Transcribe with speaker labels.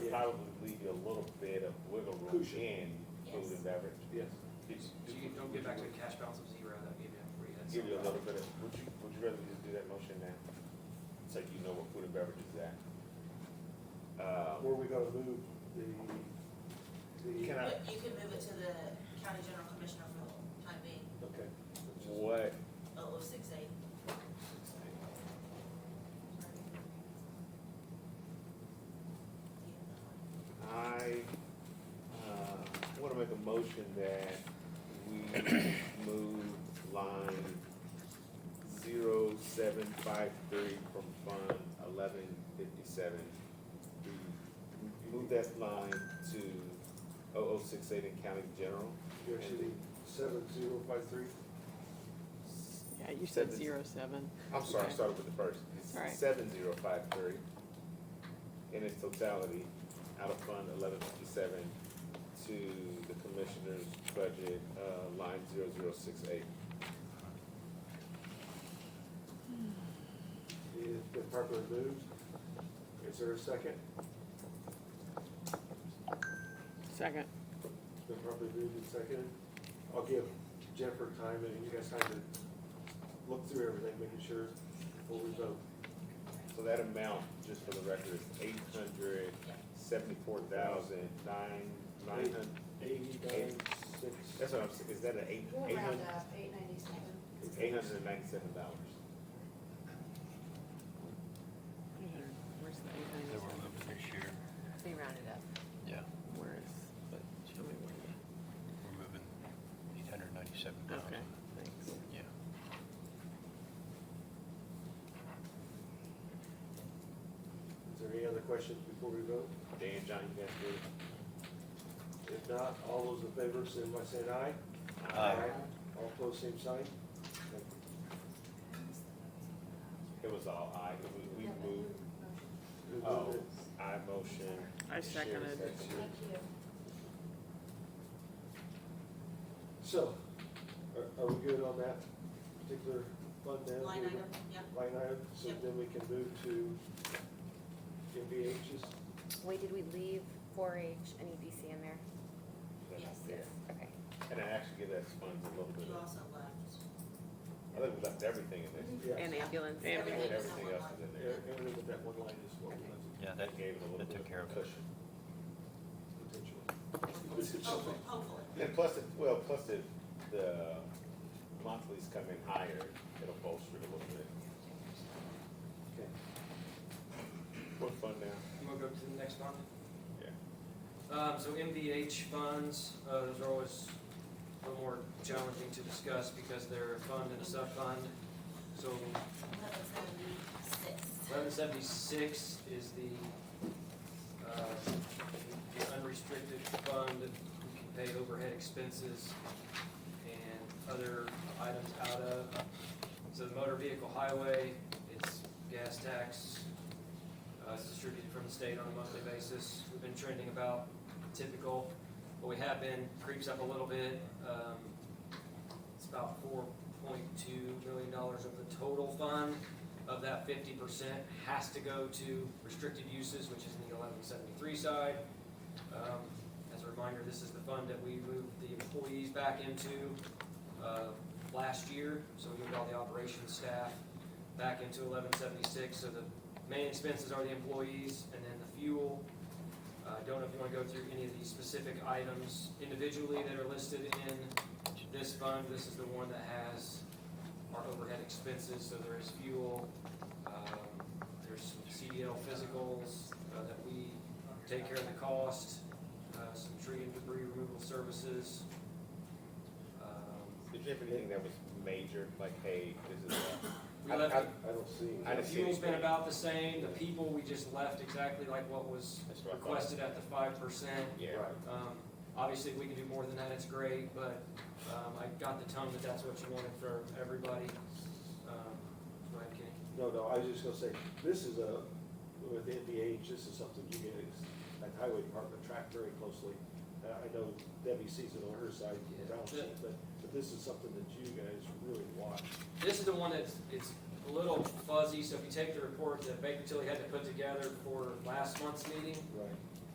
Speaker 1: probably leave you a little bit of wiggle room
Speaker 2: Cushion.
Speaker 1: in food
Speaker 3: Yes.
Speaker 1: and beverage.
Speaker 2: Yes.
Speaker 1: It's-
Speaker 4: So you don't get back to a cash balance of zero, that'd give you a free head.
Speaker 1: Give you a
Speaker 4: start.
Speaker 1: little bit of, would you, would you rather just do that motion now? So you know what food and beverage is at.
Speaker 2: Where
Speaker 1: Um,
Speaker 2: we gotta move the, the,
Speaker 1: Can I,
Speaker 3: But you can uh, move it to the county general commissioner for the time being,
Speaker 2: okay.
Speaker 1: what,
Speaker 3: oh, oh, six eight.
Speaker 1: I, uh, wanna make a motion that we move line zero seven five three from fund eleven fifty-seven. Move that line to 0068 in county general.
Speaker 2: You're actually seven zero five three.
Speaker 5: Yeah, you said
Speaker 1: Seven-
Speaker 5: zero seven.
Speaker 1: I'm sorry, I
Speaker 5: Okay.
Speaker 1: started with the first.
Speaker 5: All right.
Speaker 1: Seven zero five three in its totality, out of fund eleven fifty-seven to the commissioner's budget, uh, line zero zero six eight.
Speaker 2: It's been properly moved. Is there a second?
Speaker 5: Second.
Speaker 2: It's been properly moved and seconded. I'll give Jennifer time and you guys time to look through everything, making sure before we vote.
Speaker 1: So that amount, just for the record, is eight hundred seventy-four thousand nine, nine hundred.
Speaker 2: Eighty-nine, six.
Speaker 1: That's what I'm saying, is that an eight,
Speaker 6: We'll
Speaker 1: eight
Speaker 6: round
Speaker 1: hundred,
Speaker 6: up, eight ninety-seven.
Speaker 1: it's eight hundred and ninety-seven dollars?
Speaker 5: Where's the eight ninety
Speaker 7: They were
Speaker 5: seven?
Speaker 7: moved this year.
Speaker 6: They rounded up.
Speaker 7: Yeah.
Speaker 5: Where is, but show me where the,
Speaker 7: We're moving eight hundred ninety-seven
Speaker 5: okay,
Speaker 7: thousand.
Speaker 5: thanks.
Speaker 7: Yeah.
Speaker 2: Is there any other questions before we vote?
Speaker 1: Dan, John, you guys good?
Speaker 2: If not, all those in favor, say by saying aye.
Speaker 5: Uh,
Speaker 2: All opposed, same sign.
Speaker 1: It was all aye, we, we moved,
Speaker 2: Who moved
Speaker 1: oh,
Speaker 2: it?
Speaker 1: I motion.
Speaker 5: I
Speaker 1: Sherry
Speaker 5: seconded.
Speaker 1: seconded.
Speaker 6: Thank you.
Speaker 2: So, are, are we good on that particular fund then?
Speaker 3: Line item, yeah.
Speaker 2: Line item, so
Speaker 3: Yep.
Speaker 2: then we can move to MVH's.
Speaker 8: Wait, did we leave four H and EDC in there?
Speaker 3: Yes.
Speaker 1: Yeah.
Speaker 8: Okay.
Speaker 1: And I actually give that funds a little bit
Speaker 3: You
Speaker 1: of,
Speaker 3: also left.
Speaker 1: I think we left everything in there.
Speaker 2: Yeah,
Speaker 8: And ambulance.
Speaker 5: And
Speaker 3: Everything is
Speaker 1: Everything
Speaker 3: on one
Speaker 1: else
Speaker 3: line.
Speaker 1: is in there.
Speaker 2: e- everything but that one line is what we left
Speaker 7: Yeah, that,
Speaker 1: Gave it a little
Speaker 7: that
Speaker 1: bit
Speaker 7: took care
Speaker 1: of
Speaker 7: of it.
Speaker 1: cushion.
Speaker 2: potentially.
Speaker 3: Hopefully, hopefully.
Speaker 1: And plus, it, well, plus if the monthlies come in higher, it'll bolster it a little bit.
Speaker 2: Okay.
Speaker 1: What fund now?
Speaker 4: You wanna go to the next one?
Speaker 1: Yeah.
Speaker 4: Um, so MVH funds, uh, those are always a little more challenging to discuss because they're a fund and a sub-fund. So
Speaker 3: Eleven seventy-six.
Speaker 4: eleven seventy-six is the, uh, the unrestricted fund that we can pay overhead expenses and other items out of. So the motor vehicle highway, it's gas tax, uh, it's distributed from the state on a monthly basis. We've been trending about typical, but we have been, creeps up a little bit. Um, It's about four point two million dollars of the total fund. Of that, fifty percent has to go to restricted uses, which is in the eleven seventy-three side. Um, As a reminder, this is the fund that we moved the employees back into uh, last year, so we moved all the operations staff back into eleven seventy-six, so the main expenses are the employees and then the fuel. Uh, I don't know if you want to go through any of these specific items individually that are listed in this fund. This is the one that has our overhead expenses, so there is fuel, um, there's some CDL physicals uh, that we take care of the cost, uh, some tree and debris removal services. Um,
Speaker 1: Did you have anything that was major, like, hey, this is, a-
Speaker 4: We
Speaker 1: I-
Speaker 4: left
Speaker 1: I-
Speaker 4: it
Speaker 2: I don't see.
Speaker 1: I
Speaker 4: The
Speaker 1: didn't see
Speaker 4: fuel's been
Speaker 1: anything.
Speaker 4: about the same, the people, we just left exactly like what was
Speaker 1: that's what I thought.
Speaker 4: requested at the five percent.
Speaker 1: Yeah,
Speaker 2: Right.
Speaker 4: Um, obviously, if we can do more than that, it's great, but, um, I got the tone that that's what you wanted for everybody. Um, Go ahead, Kenny.
Speaker 2: No, no, I was just gonna say, this is a, with NVH, this is something you guys, that highway department track very closely. Uh, I know Debbie sees it on her side,
Speaker 4: Yeah.
Speaker 2: balance sheet, but, but this is something that you guys really watch.
Speaker 4: This is the one that's, it's a little fuzzy, so if you take the report that Baker Tilly had to put together for last month's meeting,
Speaker 2: Right.